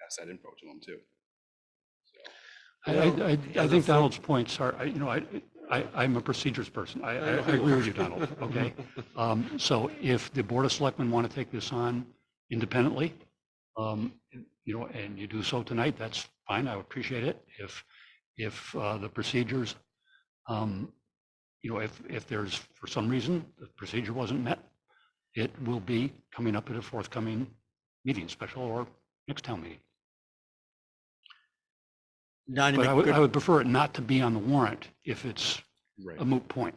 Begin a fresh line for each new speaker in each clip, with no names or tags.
pass that info to them too. So,
I, I, I- I think Donald's points are, I- you know, I, I, I'm a procedures person. I, I I agree with you, Donald, okay?
Mm-hmm.
Um, so if the Board of Selectmen want to take this on independently, um, you know, and you do so tonight, that's fine. I appreciate it. If, if, uh, the procedures, um, you know, if, if there's, for some reason, the procedure wasn't met, it will be coming up at a forthcoming meeting, special or next town meeting.
Don, you
But
make
I would,
good-
I would prefer it not to be on the warrant if it's
right.
a moot point.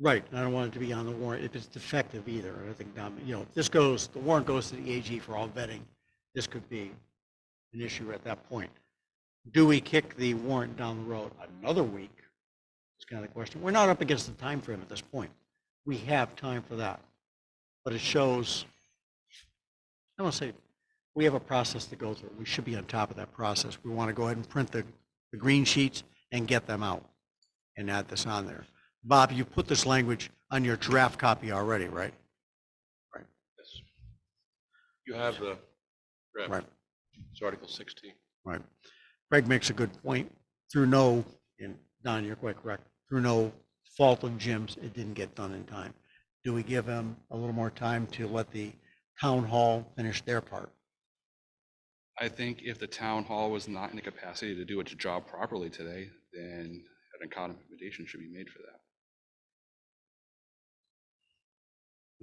right, I don't want it to be on the warrant if it's defective either. I think, Don, you know, if this goes, the warrant goes to the AG for all vetting, this could be an issue at that point. Do we kick the warrant down the road another week? It's kind of the question. We're not up against the time frame at this point. We have time for that. But it shows, I want to say, we have a process to go through. We should be on top of that process. We want to go ahead and print the, the green sheets and get them out and add this on there. Bob, you put this language on your draft copy already, right?
Yes. You have the,
Right,
draft. it's Article 16.
right. Craig makes a good point. Through no, and Don, you're quite correct, through no fault of Jim's, it didn't get done in time. Do we give him a little more time to let the town hall finish their part?
I think if the town hall was not in the capacity to do its job properly today, then an accommodation should be made for that.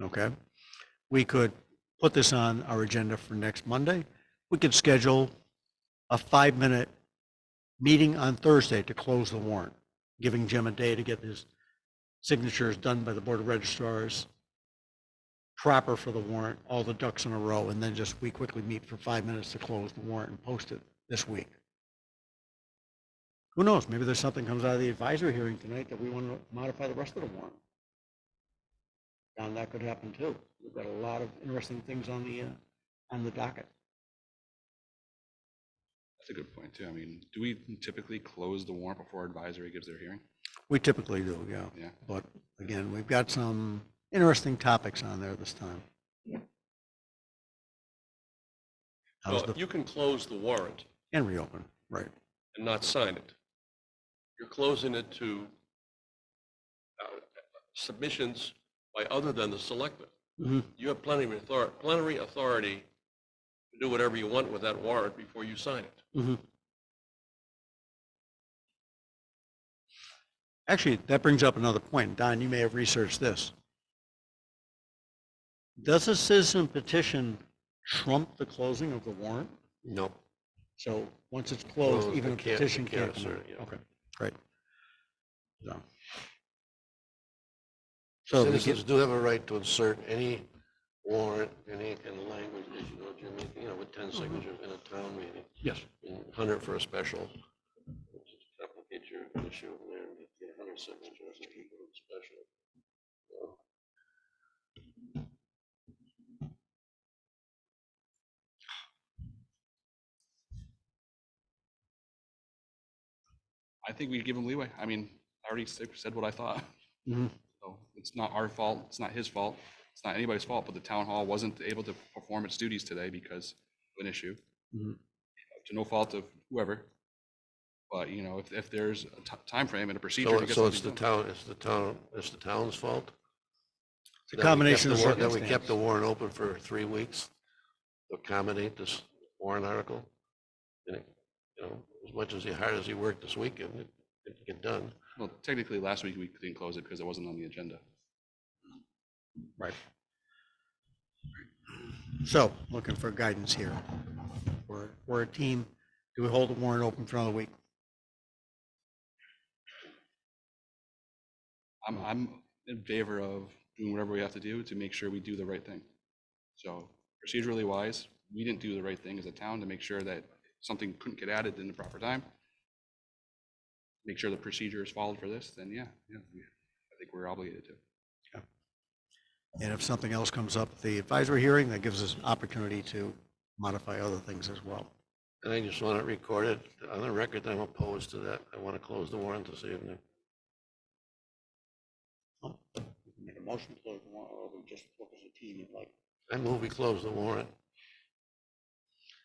Okay. We could put this on our agenda for next Monday. We could schedule a five-minute meeting on Thursday to close the warrant, giving Jim a day to get his signatures done by the Board of registrars, proper for the warrant, all the ducks in a row, and then just we quickly meet for five minutes to close the warrant and post it this week. Who knows? Maybe there's something comes out of the advisory hearing tonight that we want to modify the rest of the warrant. And that could happen too. We've got a lot of interesting things on the, uh, on the docket.
That's a good point too. I mean, do we typically close the warrant before advisory gives their hearing?
We typically do, yeah.
Yeah.
But again, we've got some interesting topics on there this time. How's
Well,
the,
you can close the warrant
and reopen, right.
and not sign it. You're closing it to uh, submissions by other than the selectmen.
Mhm.
You have plenty of authority, plenary authority to do whatever you want with that warrant before you sign it.
Actually, that brings up another point. Don, you may have researched this. Does a citizen petition trump the closing of the warrant?
No.
So once it's closed,
Closed,
even
they
a
can't- they
petition
can't
can't come
assert
out.
it, yeah.
Okay, great. So- So, we
Citizens
get-
do have a right to insert any warrant, any kind of language, as you know, Jimmy, you know, with ten signatures in a town meeting,
Yes.
and hundred for a special. Complicate your issue in there, and get hundred signatures and equal to the special.
I think we give him leeway. I mean, I already said said what I thought.
Mm-hmm.
Mhm.
So it's not our fault, it's not his fault, it's not anybody's fault, but the town hall wasn't able to perform its duties today because of an issue.
Mm-hmm.
Mhm.
To no fault of whoever. But, you know, if, if there's a ti- timeframe and a procedure.
So,
to get
so it's the
something done.
town, it's the town, it's the town's fault?
It's
that we
a
kept
combination
the
of
warrant- That we kept the
circumstances.
warrant open for three weeks to accommodate this warrant article. And, it- you know, as much as he, hard as he worked this weekend, it didn't get done.
Well, technically, last week we didn't close it because it wasn't on the agenda.
Right. So, looking for guidance here. We're, we're a team. Do we hold the warrant open for another week?
I'm, I'm in favor of doing whatever we have to do to make sure we do the right thing. So procedurally wise, we didn't do the right thing as a town to make sure that something couldn't get added in the proper time. Make sure the procedure is followed for this, then yeah, yeah, we- I think we're obligated to.
And if something else comes up, at the advisory hearing, that gives us an opportunity to modify other things as well.
And I just want it recorded on the record, that I'm opposed to that. I want to close the warrant this evening.
Make a motion to close the warrant, or we just work as a team and like
I move we close the warrant.